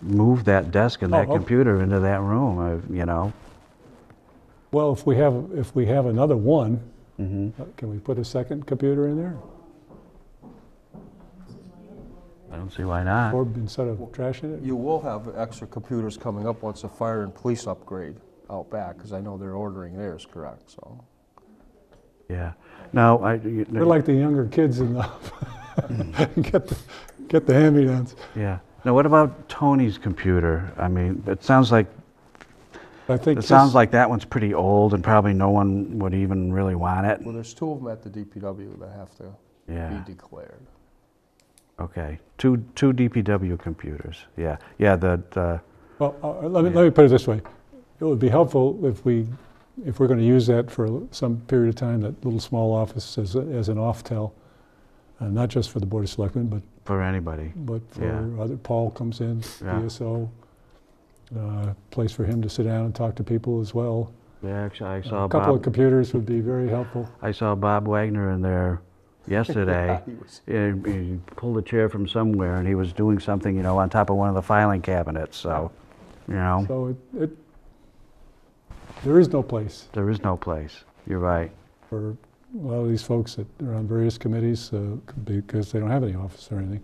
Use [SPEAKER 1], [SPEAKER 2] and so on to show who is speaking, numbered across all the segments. [SPEAKER 1] move that desk and
[SPEAKER 2] Oh,
[SPEAKER 1] that
[SPEAKER 2] okay.
[SPEAKER 1] computer into that room, I- you know?
[SPEAKER 2] Well, if we have, if we have another one,
[SPEAKER 1] Mm-hmm.
[SPEAKER 2] uh, can we put a second computer in there?
[SPEAKER 1] I don't see why not.
[SPEAKER 2] Or instead of trashing it?
[SPEAKER 3] You will have extra computers coming up once the fire and police upgrade out back, because I know they're ordering theirs, correct, so.
[SPEAKER 1] Yeah. Now, I, you-
[SPEAKER 2] We're like the younger kids in the,
[SPEAKER 1] Mm-hmm.
[SPEAKER 2] get the, get the hand-me-downs.
[SPEAKER 1] yeah. Now, what about Tony's computer? I mean, it sounds like,
[SPEAKER 2] I think
[SPEAKER 1] it sounds
[SPEAKER 2] this-
[SPEAKER 1] like that one's pretty old and probably no one would even really want it.
[SPEAKER 3] Well, there's two of them at the DPW that have to
[SPEAKER 1] Yeah.
[SPEAKER 3] be declared.
[SPEAKER 1] Okay, two, two DPW computers, yeah, yeah, the, the,
[SPEAKER 2] Well, uh, let me, let me put it this way. It would be helpful if we, if we're going to use that for some period of time, that little small office as, a- as an off-tell, uh, not just for the Board of Selectmen, but,
[SPEAKER 1] for anybody,
[SPEAKER 2] but for
[SPEAKER 1] Yeah.
[SPEAKER 2] other, Paul comes in,
[SPEAKER 1] Yeah.
[SPEAKER 2] DSO, uh, place for him to sit down and talk to people as well.
[SPEAKER 1] yeah, actually, I saw
[SPEAKER 2] A couple of
[SPEAKER 1] Bob,
[SPEAKER 2] computers would be very helpful.
[SPEAKER 1] I saw Bob Wagner in there yesterday.
[SPEAKER 3] He was-
[SPEAKER 1] He he pulled a chair from somewhere and he was doing something, you know, on top of one of the filing cabinets, so, you know,
[SPEAKER 2] So it, it, there is no place
[SPEAKER 1] there is no place, you're right,
[SPEAKER 2] for a lot of these folks that are on various committees uh, because they don't have any office or anything.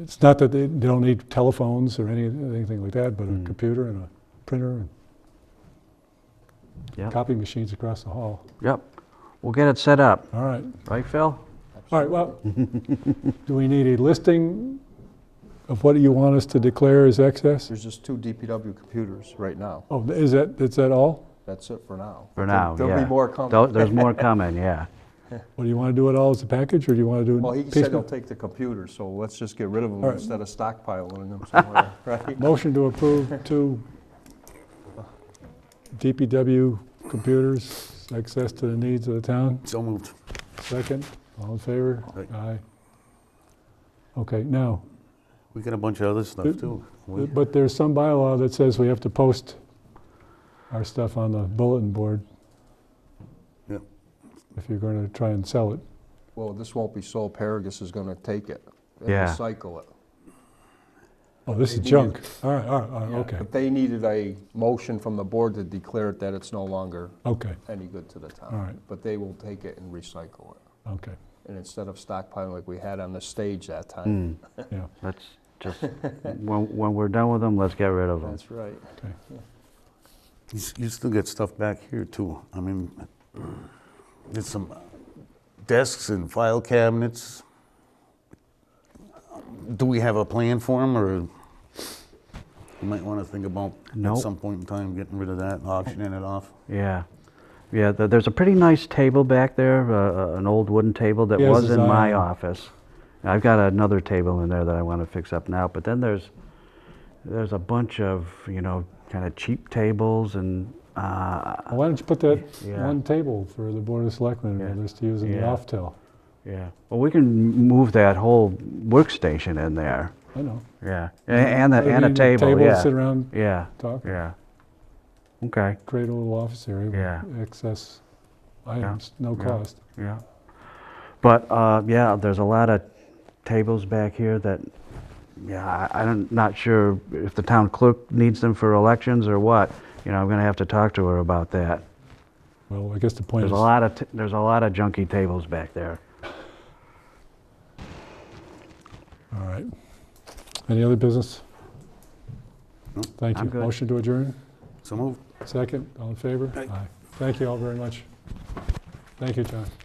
[SPEAKER 2] It's not that they they don't need telephones or any anything like that, but a
[SPEAKER 1] Mm.
[SPEAKER 2] computer and a printer and
[SPEAKER 1] Yep.
[SPEAKER 2] copy machines across the hall.
[SPEAKER 1] yep. We'll get it set up,
[SPEAKER 2] All right,
[SPEAKER 1] right, Phil?
[SPEAKER 2] all right, well, do we need a listing of what you want us to declare as excess?
[SPEAKER 3] There's just two DPW computers right now.
[SPEAKER 2] Oh, is that, is that all?
[SPEAKER 3] That's it for now.
[SPEAKER 1] For now,
[SPEAKER 3] There'll
[SPEAKER 1] yeah.
[SPEAKER 3] be more coming.
[SPEAKER 1] Tho- There's more coming, yeah,
[SPEAKER 2] Well, do you want to do it all as a package, or do you want to do
[SPEAKER 3] Well,
[SPEAKER 2] it
[SPEAKER 3] he said he'll
[SPEAKER 2] piecemeal?
[SPEAKER 3] take the computers, so let's just get rid of them
[SPEAKER 2] All right.
[SPEAKER 3] instead of stockpiling them somewhere, right?
[SPEAKER 2] Motion to approve two DPW computers, access to the needs of the town.
[SPEAKER 4] So moved.
[SPEAKER 2] Second, all in favor?
[SPEAKER 4] Aye.
[SPEAKER 2] Aye. Okay, now,
[SPEAKER 4] We got a bunch of other stuff,
[SPEAKER 2] Yep.
[SPEAKER 4] too. We-
[SPEAKER 2] but there's some bylaw that says we have to post our stuff on the bulletin board.
[SPEAKER 4] Yep.
[SPEAKER 2] If you're going to try and sell it.
[SPEAKER 3] Well, this won't be sold, Paragus is gonna take it and
[SPEAKER 1] Yeah.
[SPEAKER 3] recycle it.
[SPEAKER 2] Oh, this is
[SPEAKER 3] Maybe you-
[SPEAKER 2] junk. All right, all right, all right, Uh, okay,
[SPEAKER 3] But they needed a motion from the board to declare it that it's no longer
[SPEAKER 2] okay,
[SPEAKER 3] any good to the
[SPEAKER 2] all
[SPEAKER 3] town.
[SPEAKER 2] right,
[SPEAKER 3] But they will take it and recycle it.
[SPEAKER 2] okay.
[SPEAKER 3] And instead of stockpiling like we had on the stage that time.
[SPEAKER 1] Hmm,
[SPEAKER 2] Yeah.
[SPEAKER 1] let's just, when, when we're done with them, let's get
[SPEAKER 2] Mm.
[SPEAKER 1] rid of them.
[SPEAKER 3] That's right.
[SPEAKER 4] You s- you still get stuff back here, too. I mean, there's some desks and file cabinets. Do we have a plan for them, or you might want to think about at
[SPEAKER 1] Nope.
[SPEAKER 4] some point in time getting rid of that, and auctioning it off?
[SPEAKER 1] Yeah, yeah. th there's a pretty nice table back there, uh, uh, an old wooden table that
[SPEAKER 2] Yes,
[SPEAKER 1] was in my
[SPEAKER 2] design.
[SPEAKER 1] office. I've got another table in there that I want to fix up now. But then there's there's a bunch of you know kind of cheap tables and uh,
[SPEAKER 2] Well, Why don't you put that
[SPEAKER 1] Yeah.
[SPEAKER 2] one table for the Board of Selectmen and
[SPEAKER 1] Yeah.
[SPEAKER 2] others to use in the
[SPEAKER 1] Yeah.
[SPEAKER 2] off-till?
[SPEAKER 1] yeah. Well, we can m- move that whole workstation in there.
[SPEAKER 2] I know.
[SPEAKER 1] Yeah, A- and the, and a
[SPEAKER 2] Maybe
[SPEAKER 1] table. yeah,
[SPEAKER 2] Sit around,
[SPEAKER 1] yeah,
[SPEAKER 2] talk,
[SPEAKER 1] yeah. Okay.
[SPEAKER 2] create a little office area
[SPEAKER 1] Yeah.
[SPEAKER 2] with excess items, no
[SPEAKER 1] Yeah.
[SPEAKER 2] cost.
[SPEAKER 1] Yeah. But, uh, yeah, there's a lot of tables back here that, yeah, I, I'm not sure if the town clerk needs them for elections or what. You know, I'm gonna have to talk to her about that.
[SPEAKER 2] Well, I guess the point
[SPEAKER 1] There's
[SPEAKER 2] is,
[SPEAKER 1] a lot of, t- there's a lot of junky tables back there.
[SPEAKER 2] all right. Any other business? Thank
[SPEAKER 1] I'm
[SPEAKER 2] you.
[SPEAKER 1] good.
[SPEAKER 2] Motion to adjourn?
[SPEAKER 4] So moved.
[SPEAKER 2] Second, all in favor?
[SPEAKER 4] Aye.
[SPEAKER 2] Aye. Thank you all very much. Thank you, John.